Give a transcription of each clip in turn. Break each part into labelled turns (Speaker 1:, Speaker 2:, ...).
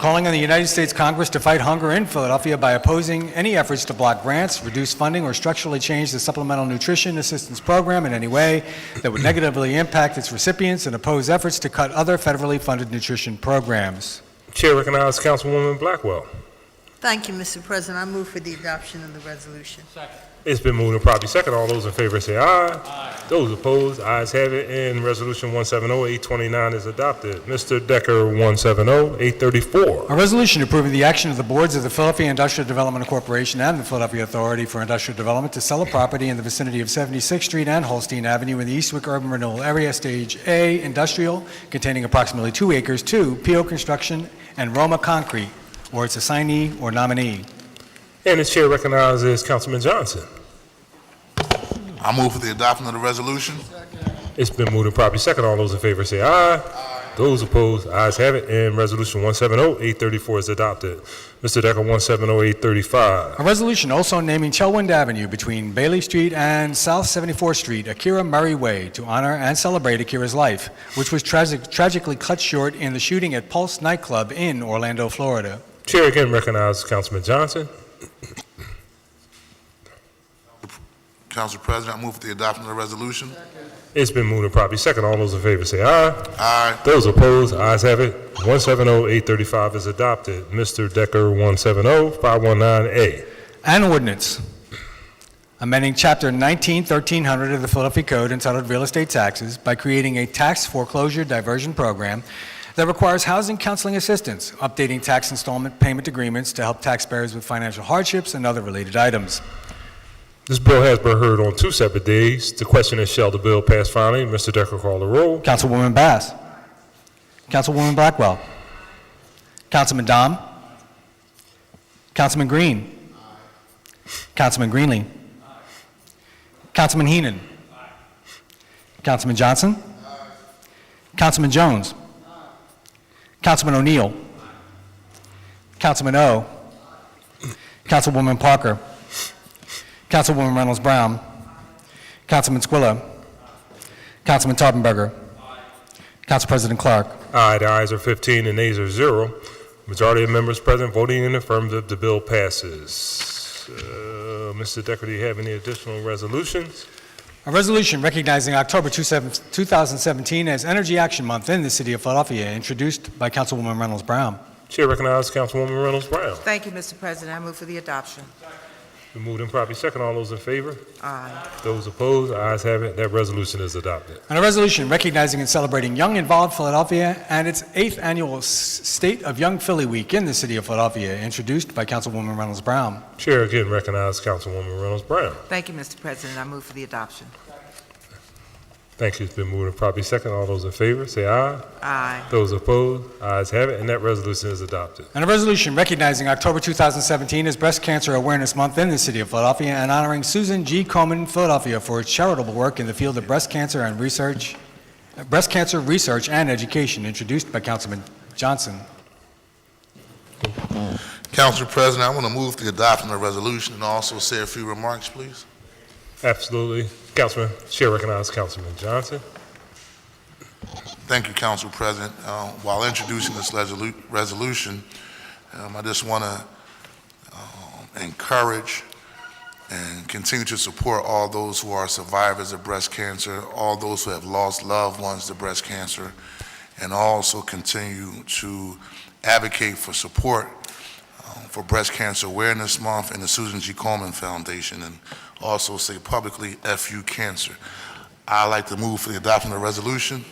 Speaker 1: calling on the United States Congress to fight hunger in Philadelphia by opposing any efforts to block grants, reduce funding, or structurally change the Supplemental Nutrition Assistance Program in any way that would negatively impact its recipients and oppose efforts to cut other federally funded nutrition programs.
Speaker 2: Chair recognizes Councilwoman Blackwell.
Speaker 3: Thank you, Mr. President. I move for the adoption of the resolution.
Speaker 2: It's been moved and properly second. All those in favor say aye. Aye. Those opposed, ayes have it, and Resolution 170-829 is adopted. Mr. Decker, 170-834.
Speaker 1: A resolution approving the action of the boards of the Philadelphia Industrial Development Corporation and the Philadelphia Authority for Industrial Development to sell a property in the vicinity of 76th Street and Holstein Avenue in the Eastwick Urban Renewal Area, Stage A, Industrial, containing approximately two acres, to PO Construction and Roma Concrete, or its assignee or nominee.
Speaker 2: And the chair recognizes Councilman Johnson.
Speaker 4: I move for the adoption of the resolution.
Speaker 2: It's been moved and properly second. All those in favor say aye. Aye. Those opposed, ayes have it, and Resolution 170-834 is adopted. Mr. Decker, 170-835.
Speaker 1: A resolution also naming Chelwind Avenue between Bailey Street and South 74th Street, Akira Murray Way, to honor and celebrate Akira's life, which was tragic- tragically cut short in the shooting at Pulse nightclub in Orlando, Florida.
Speaker 2: Chair again recognizes Councilman Johnson.
Speaker 4: Council President, I move for the adoption of the resolution.
Speaker 2: It's been moved and properly second. All those in favor say aye.
Speaker 4: Aye.
Speaker 2: Those opposed, ayes have it. 170-835 is adopted. Mr. Decker, oh, 170-519A.
Speaker 1: An ordinance amending Chapter 19, 1300 of the Philadelphia Code entitled Real Estate Taxes by creating a tax foreclosure diversion program that requires housing counseling assistance, updating tax installment payment agreements to help taxpayers with financial hardships and other related items.
Speaker 2: This bill has been heard on two separate days. The question is, shall the bill pass finally? Mr. Decker call the roll.
Speaker 1: Councilwoman Bass. Councilwoman Blackwell. Councilman Dom. Councilman Green. Councilman Greenlee. Councilman Heenan. Councilman Johnson. Councilman Jones. Councilman O'Neill. Councilman O. Councilwoman Parker. Councilwoman Reynolds Brown. Councilman Squilla. Councilman Tarpenberger. Council President Clark.
Speaker 2: Aye, the ayes are 15 and nays are 0. Majority of members present voting in affirmative, the bill passes. Uh, Mr. Decker, do you have any additional resolutions?
Speaker 1: A resolution recognizing October 27 2017 as Energy Action Month in the City of Philadelphia, introduced by Councilwoman Reynolds Brown.
Speaker 2: Chair recognizes Councilwoman Reynolds Brown.
Speaker 5: Thank you, Mr. President. I move for the adoption.
Speaker 2: Been moved and properly second. All those in favor?
Speaker 5: Aye.
Speaker 2: Those opposed, ayes have it. That resolution is adopted.
Speaker 1: And a resolution recognizing and celebrating Young Involved Philadelphia and its eighth annual S- State of Young Philly Week in the City of Philadelphia, introduced by Councilwoman Reynolds Brown.
Speaker 2: Chair again recognizes Councilwoman Reynolds Brown.
Speaker 5: Thank you, Mr. President. I move for the adoption.
Speaker 2: Thank you. It's been moved and properly second. All those in favor, say aye.
Speaker 5: Aye.
Speaker 2: Those opposed, ayes have it, and that resolution is adopted.
Speaker 1: And a resolution recognizing October 2017 as Breast Cancer Awareness Month in the City of Philadelphia and honoring Susan G. Komen, Philadelphia, for her charitable work in the field of breast cancer and research, uh, breast cancer research and education, introduced by Councilman Johnson.
Speaker 4: Council President, I want to move for the adoption of the resolution and also say a few remarks, please.
Speaker 2: Absolutely. Councilman, Chair recognizes Councilman Johnson.
Speaker 4: Thank you, Council President. Uh, While introducing this resolu- resolution, um, I just want to encourage and continue to support all those who are survivors of breast cancer, all those who have lost loved ones to breast cancer, and also continue to advocate for support um, for Breast Cancer Awareness Month and the Susan G. Coleman Foundation, and also say publicly, "Fu Cancer." I'd like to move for the adoption of the resolution.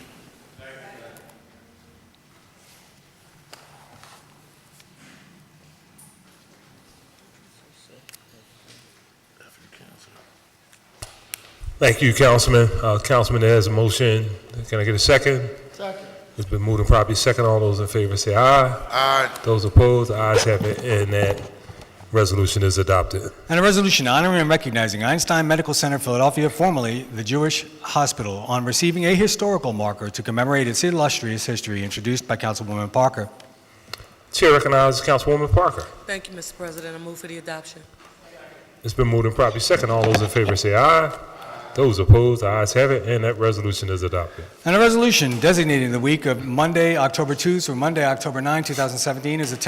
Speaker 2: Thank you, Councilman. Uh, Councilman has a motion. Can I get a second? Second. It's been moved and properly second. All those in favor say aye.
Speaker 4: Aye.
Speaker 2: Those opposed, ayes have it, and that resolution is adopted.
Speaker 1: And a resolution honoring and recognizing Einstein Medical Center Philadelphia, formerly the Jewish Hospital, on receiving a historical marker to commemorate its illustrious history, introduced by Councilwoman Parker.
Speaker 2: Chair recognizes Councilwoman Parker.
Speaker 6: Thank you, Mr. President. I move for the adoption.
Speaker 2: It's been moved and properly second. All those in favor say aye. Those opposed, the ayes have it, and that resolution is adopted.
Speaker 1: And a resolution designating the week of Monday, October 2 through Monday, October 9, 2017 as a town